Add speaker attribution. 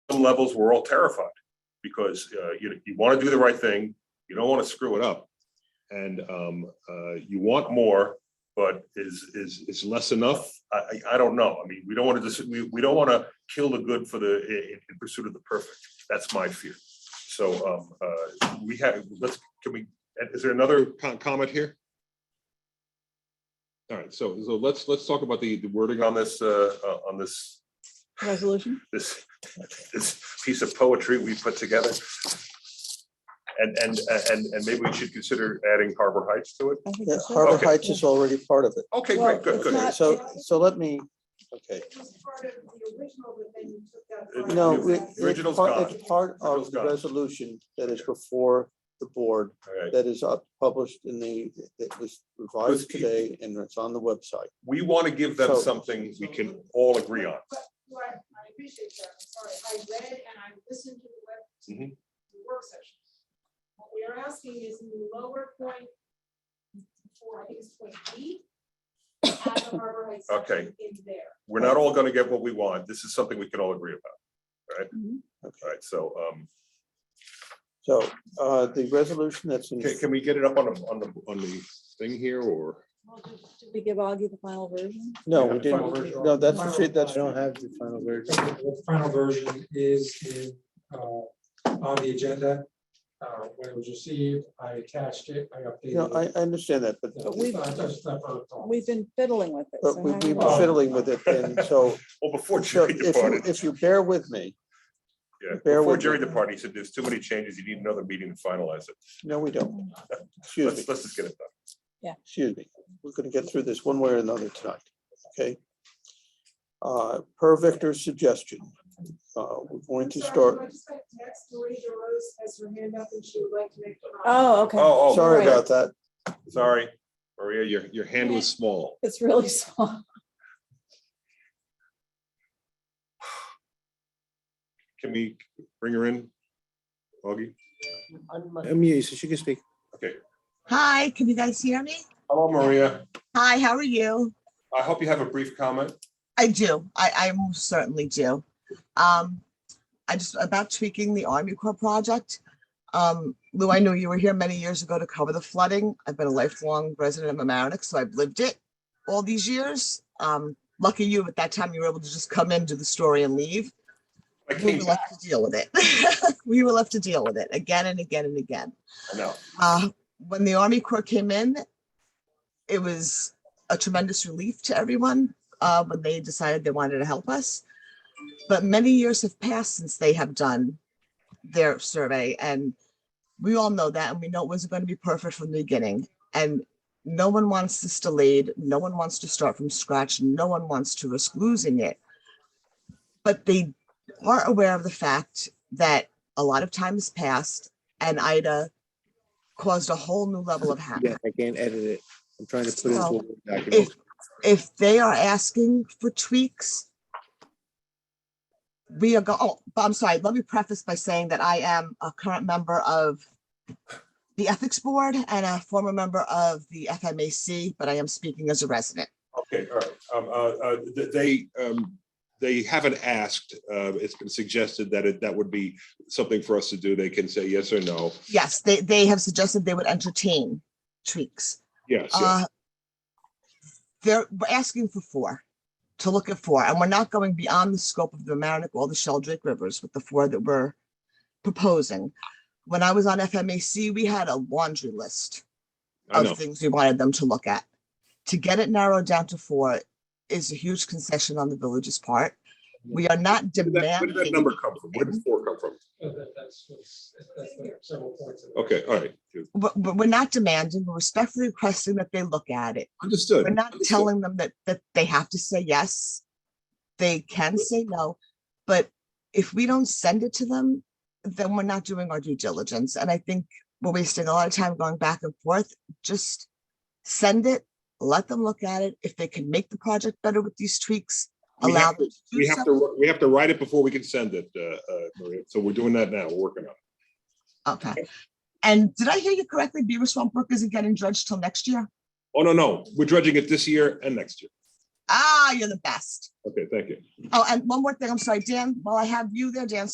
Speaker 1: thousand levels, we're all terrified. Because uh, you, you want to do the right thing, you don't want to screw it up. And um, uh, you want more, but is, is, is less enough? I, I, I don't know. I mean, we don't want to just, we, we don't want to kill the good for the, in, in pursuit of the perfect. That's my fear. So um, uh, we have, let's, can we, is there another co- comment here? All right, so, so let's, let's talk about the the wording on this, uh, uh, on this
Speaker 2: resolution?
Speaker 1: this, this piece of poetry we put together. And, and, and, and maybe we should consider adding Harbor Heights to it.
Speaker 2: I think
Speaker 3: Yeah,
Speaker 2: that's right.
Speaker 3: Harbor
Speaker 1: Okay.
Speaker 3: Heights is already part of it.
Speaker 1: Okay,
Speaker 2: Well,
Speaker 1: great, good,
Speaker 2: it's
Speaker 1: good.
Speaker 2: not-
Speaker 3: So, so let me, okay.
Speaker 4: It was part of the original, but then you took out.
Speaker 1: It-
Speaker 4: part
Speaker 3: No,
Speaker 4: of
Speaker 1: we-
Speaker 3: it-
Speaker 4: that.
Speaker 3: it's
Speaker 1: Original's
Speaker 3: part,
Speaker 1: gone.
Speaker 3: it's part
Speaker 1: Original's
Speaker 3: of the
Speaker 1: gone.
Speaker 3: resolution that is before the board,
Speaker 1: All right.
Speaker 3: that is up- published in the, that was
Speaker 1: Let's
Speaker 3: revised
Speaker 1: keep-
Speaker 3: today and it's on the website.
Speaker 1: We want to give them
Speaker 3: So-
Speaker 1: something we can all agree on.
Speaker 4: But what, I appreciate that, I'm sorry, I read and I listened to the web, to
Speaker 1: Mhm.
Speaker 4: the work session. What we are asking is in the lower point, for, I think it's point B, add the Harbor Heights
Speaker 1: Okay.
Speaker 4: section in there.
Speaker 1: We're not all going to get what we want. This is something we can all agree about. All
Speaker 3: Okay,
Speaker 1: right, so, um,
Speaker 3: so, uh, the resolution that's in,
Speaker 1: can, can we get it up on, the on the, on the thing here or?
Speaker 2: Did we give Augie the final version?
Speaker 3: no,
Speaker 1: Yeah,
Speaker 3: we
Speaker 1: the final
Speaker 3: didn't,
Speaker 5: version.
Speaker 3: no, that's, the shit- that's.
Speaker 5: I don't
Speaker 3: have the final version.
Speaker 5: The final version is in, uh, on the agenda. Uh, When it was received, I attached it, I
Speaker 3: No,
Speaker 5: updated
Speaker 3: I,
Speaker 5: it.
Speaker 3: I understand that, but,
Speaker 5: Yeah,
Speaker 2: we've-
Speaker 5: I just- I thought it was all.
Speaker 2: We've been fiddling with it.
Speaker 3: but
Speaker 2: so
Speaker 3: we,
Speaker 2: now
Speaker 3: we've
Speaker 2: we're-
Speaker 3: been fiddling with it and so,
Speaker 1: Well, before
Speaker 3: so
Speaker 1: Jerry
Speaker 3: if you,
Speaker 1: departed,
Speaker 3: if you bear with me,
Speaker 1: yeah,
Speaker 3: bear
Speaker 1: before
Speaker 3: with
Speaker 1: Jerry
Speaker 3: me.
Speaker 1: departed, he said, there's too many changes. You need another meeting to finalize it.
Speaker 3: no, we don't. Excuse me.
Speaker 1: Let's, let's just get it done.
Speaker 3: excuse me, we're gonna get through this one way or another tonight, okay? Uh, per Victor's suggestion, uh, we're going to
Speaker 4: I'm sorry,
Speaker 3: start,
Speaker 4: I just got a text, Marie DeRose has her hand up and she would like to make. a comment.
Speaker 2: Oh, okay.
Speaker 1: Oh, oh,
Speaker 3: sorry about that.
Speaker 1: sorry. Maria, your, your hand was small.
Speaker 2: It's really small.
Speaker 1: Can we bring her in? Augie?
Speaker 6: Unmute, so she can speak.
Speaker 7: Hi, can you guys hear me?
Speaker 1: Hello, Maria.
Speaker 7: Hi, how are you?
Speaker 1: I hope you have a brief comment.
Speaker 7: I do. I, I most certainly do. Um, I just about tweaking the Army Corps project. Um, Lou, I know you were here many years ago to cover the flooding. I've been a lifelong resident of Amerenik, so I've lived it all these years. Um, lucky you, at that time you were able to just come in, do the story and leave.
Speaker 1: I
Speaker 7: We
Speaker 1: came
Speaker 7: were
Speaker 1: back
Speaker 7: left to deal with it. We were left to deal with it again and again and again.
Speaker 1: now.
Speaker 7: Uh, when the Army Corps came in, it was a tremendous relief to everyone uh, when they decided they wanted to help us. But many years have passed since they have done their survey, and we all know that, and we know it wasn't going to be perfect from the beginning. And no one wants this delayed. No one wants to start from scratch. No one wants to risk losing it. But they are aware of the fact that a lot of time has passed, and Ida caused a whole new level of
Speaker 6: Yeah,
Speaker 7: havoc.
Speaker 6: I can't edit it. I'm trying to put it into a
Speaker 7: Well,
Speaker 6: Word document.
Speaker 7: If, if they are asking for tweaks, we are go, oh, but I'm sorry, let me preface by saying that I am a current member of the Ethics Board and a former member of the FMAC, but I am speaking as a resident.
Speaker 1: Okay, all right. Um, uh, uh, th- They, um, they haven't asked. uh, It's been suggested that it, that would be something for us to do. They can say yes or no.
Speaker 7: Yes, they, they have suggested they would entertain tweaks.
Speaker 1: Yes. yes.
Speaker 7: Uh, They're, we're asking for four, to look at four, and we're not going beyond the scope of the Amerenik or the Sheldrake Rivers with the four that we're proposing. When I was on FMAC, we had a laundry list
Speaker 1: I know.
Speaker 7: of things we wanted them to look at. To get it narrowed down to four is a huge concession on the village's part. We are not
Speaker 1: Where did that- where did that
Speaker 7: demanding,
Speaker 1: number come from? Where did four come from?
Speaker 5: So that- That's, what's- that's the several points. of it.
Speaker 1: Okay, all right.
Speaker 7: but, but we're not demanding, we're respectfully requesting that they look at it.
Speaker 1: Understood.
Speaker 7: We're not
Speaker 1: understood.
Speaker 7: telling them that, that they have to say yes. They can say no, but if we don't send it to them, then we're not doing our due diligence. And I think we're wasting a lot of time going back and forth. Just send it, let them look at it. If they can make the project better with these tweaks,
Speaker 1: We
Speaker 7: allow
Speaker 1: have to,
Speaker 7: them to do
Speaker 1: we have
Speaker 7: so.
Speaker 1: to, we have to write it before we can send it, uh, uh, Maria. So we're doing that now. We're working on it.
Speaker 7: Okay. And did I hear you correctly? Beaver Swamp Brook isn't getting dredged till next year?
Speaker 1: Oh, no, no. We're dredging it this year and next year.
Speaker 7: Ah, you're the best.
Speaker 1: Okay, thank you.
Speaker 7: Oh, and one more thing. I'm sorry, Dan, while I have you there, Dan,